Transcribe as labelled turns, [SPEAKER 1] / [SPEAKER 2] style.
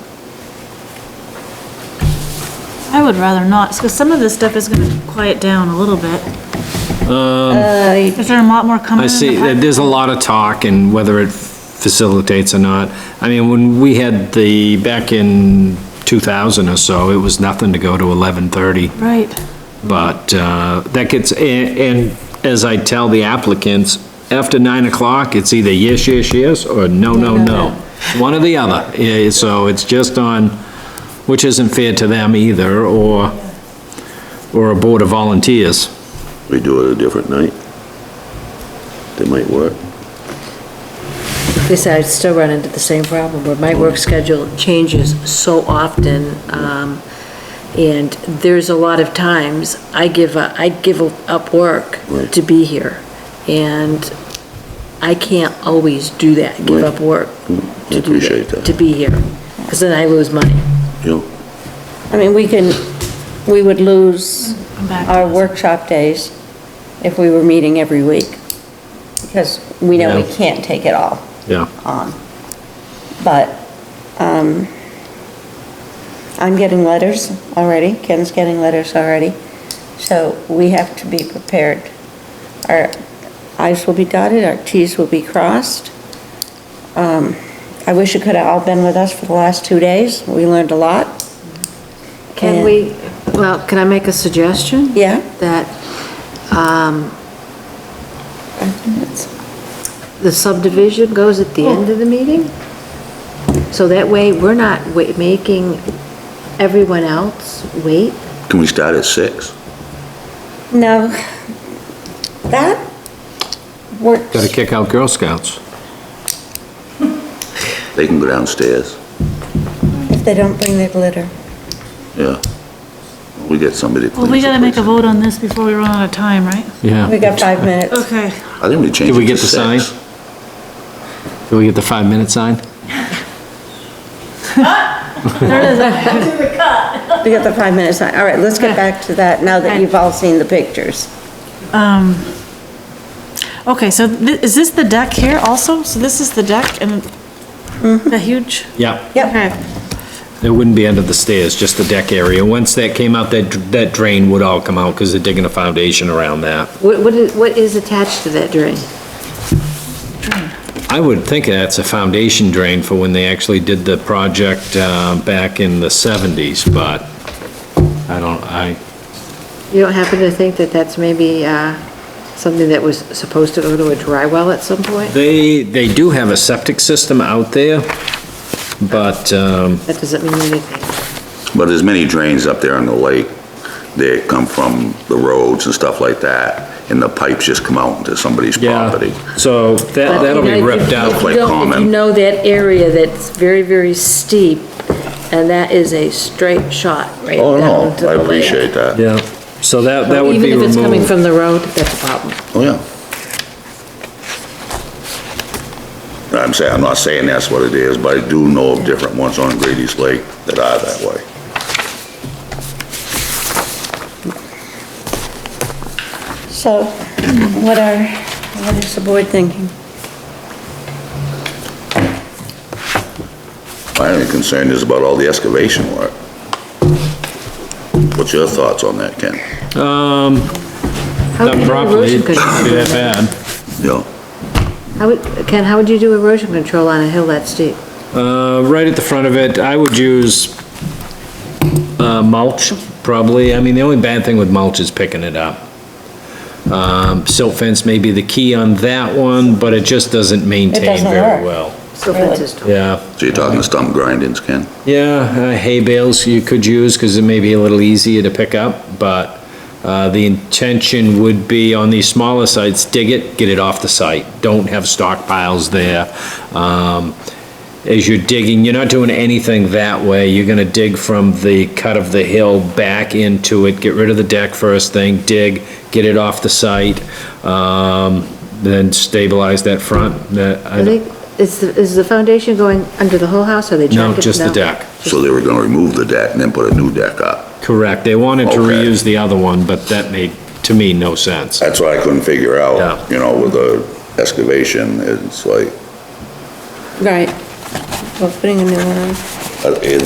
[SPEAKER 1] I would rather not, because some of this stuff is going to quiet down a little bit. Is there a lot more coming? in
[SPEAKER 2] Um, I
[SPEAKER 1] the
[SPEAKER 2] see,
[SPEAKER 1] pipe?
[SPEAKER 2] there's a lot of talk and whether it facilitates or not. I mean, when we had the, back in 2000 or so, it was nothing to go to 11:30.
[SPEAKER 1] Right.
[SPEAKER 2] But uh, that gets, and and as I tell the applicants, after 9 o'clock, it's either yes, yes, yes, or no, no, no. One or the other. Yeah, So it's just on, which isn't fair to them either, or, or a board of volunteers.
[SPEAKER 3] We do it a different night. That might work.
[SPEAKER 4] Because I still run into the same problem, where my work schedule changes so often, um, and there's a lot of times I give, a- I give up work
[SPEAKER 3] Right.
[SPEAKER 4] to be here, and I can't always do that, give
[SPEAKER 3] Right.
[SPEAKER 4] up work
[SPEAKER 3] I
[SPEAKER 4] to do
[SPEAKER 3] appreciate
[SPEAKER 4] that,
[SPEAKER 3] that.
[SPEAKER 4] to be here, because then I lose money.
[SPEAKER 3] You know,
[SPEAKER 5] I mean, we can, we would lose
[SPEAKER 1] Come back to
[SPEAKER 5] our
[SPEAKER 1] us.
[SPEAKER 5] workshop days if we were meeting every week, because we know we
[SPEAKER 2] Yeah.
[SPEAKER 5] can't take it all
[SPEAKER 2] Yeah.
[SPEAKER 5] on. But, um, I'm getting letters already, Ken's getting letters already, so we have to be prepared. Our i's will be dotted, our t's will be crossed. Um, I wish you could have all been with us for the last two days, we learned a lot.
[SPEAKER 4] Can
[SPEAKER 5] And-
[SPEAKER 4] we, well, can I make a suggestion?
[SPEAKER 5] Yeah.
[SPEAKER 4] That, um, the subdivision goes at the end of the meeting? So that way, we're not wa- making everyone else wait?
[SPEAKER 3] Can we start at six?
[SPEAKER 5] No, that works.
[SPEAKER 2] Got to kick out Girl Scouts.
[SPEAKER 3] They can go downstairs.
[SPEAKER 5] If they don't bring their glitter.
[SPEAKER 3] Yeah. We get somebody. to
[SPEAKER 1] Well,
[SPEAKER 3] clean
[SPEAKER 1] we gotta make a
[SPEAKER 3] someplace.
[SPEAKER 1] vote on this before we run out of time, right?
[SPEAKER 2] Yeah.
[SPEAKER 5] We got five minutes.
[SPEAKER 1] Okay.
[SPEAKER 3] I think we change it
[SPEAKER 2] Did we
[SPEAKER 3] to
[SPEAKER 2] get the sign?
[SPEAKER 3] six.
[SPEAKER 2] Did we get the five-minute sign?
[SPEAKER 5] We got the five minutes. All right, let's get back to that now that you've all seen the pictures.
[SPEAKER 1] Um, okay, so thi- is this the deck here also? So this is the deck and the huge?
[SPEAKER 2] Yeah,
[SPEAKER 5] Yep.
[SPEAKER 2] it wouldn't be under the stairs, just the deck area. Once that came out, that, that drain would all come out because they're digging a foundation around that.
[SPEAKER 4] What, what is- what is attached to that drain?
[SPEAKER 2] I would think that's a foundation drain for when they actually did the project, uh, back in the seventies, but I don't, I,
[SPEAKER 4] You don't happen to think that that's maybe, uh, something that was supposed to go to a dry well at some point?
[SPEAKER 2] they, they do have a septic system out there, but, um,
[SPEAKER 4] That doesn't mean anything.
[SPEAKER 3] But there's many drains up there on the lake. They come from the roads and stuff like that, and the pipes just come out into somebody's property.
[SPEAKER 2] yeah, so that,
[SPEAKER 4] But, you
[SPEAKER 2] that'll
[SPEAKER 4] know,
[SPEAKER 2] be
[SPEAKER 4] if you-
[SPEAKER 2] ripped out.
[SPEAKER 4] if you
[SPEAKER 3] Quite
[SPEAKER 4] don't- If you
[SPEAKER 3] common.
[SPEAKER 4] know that area that's very, very steep, and that is a straight shot right
[SPEAKER 3] Oh,
[SPEAKER 4] down to
[SPEAKER 3] no,
[SPEAKER 4] the
[SPEAKER 3] I
[SPEAKER 4] lake.
[SPEAKER 3] appreciate that.
[SPEAKER 2] Yeah, so that, that would be
[SPEAKER 4] Even if it's coming
[SPEAKER 2] removed.
[SPEAKER 4] from the road, that's a problem.
[SPEAKER 3] Oh, yeah. I'm saying, I'm not saying that's what it is, but I do know of different ones on Grady's Lake that are that way.
[SPEAKER 5] So what are, what is the board thinking?
[SPEAKER 3] My only concern is about all the excavation work. What's your thoughts on that, Ken?
[SPEAKER 2] Um,
[SPEAKER 4] How would
[SPEAKER 2] done
[SPEAKER 4] you do
[SPEAKER 2] properly,
[SPEAKER 4] erosion
[SPEAKER 2] it shouldn't be
[SPEAKER 4] control?
[SPEAKER 2] that bad.
[SPEAKER 3] Yeah.
[SPEAKER 4] How would, Ken, how would you do erosion control on a hill that steep?
[SPEAKER 2] Uh, right at the front of it, I would use, uh, mulch, probably. I mean, the only bad thing with mulch is picking it up. Um, silt fence may be the key on that one, but it just doesn't maintain
[SPEAKER 5] doesn't
[SPEAKER 2] very
[SPEAKER 5] work.
[SPEAKER 2] well.
[SPEAKER 4] So
[SPEAKER 5] Really?
[SPEAKER 4] fences don't.
[SPEAKER 2] Yeah,
[SPEAKER 3] So you're talking stump grindings, Ken?
[SPEAKER 2] yeah, uh, hay bales you could use, cause it may be a little easier to pick up, but, uh, the intention would be on these smaller sites, dig it, get it off the site. Don't have stockpiles there. Um, as you're digging, you're not doing anything that way. You're gonna dig from the cut of the hill back into it, get rid of the deck first thing, dig, get it off the site, um, then stabilize that front. That- I-
[SPEAKER 4] Are they, is, the- is the foundation going under the whole house, or they
[SPEAKER 2] No,
[SPEAKER 4] jacked it?
[SPEAKER 2] just the deck.
[SPEAKER 3] So they were gonna remove the deck and then put a new deck up.
[SPEAKER 2] Correct, they wanted to
[SPEAKER 3] Okay.
[SPEAKER 2] reuse the other one, but that made, to me, no sense.
[SPEAKER 3] That's what I couldn't figure
[SPEAKER 2] Yeah.
[SPEAKER 3] out, you know, with the excavation, it's like,
[SPEAKER 5] Right. We're putting a new one on.
[SPEAKER 3] uh, it-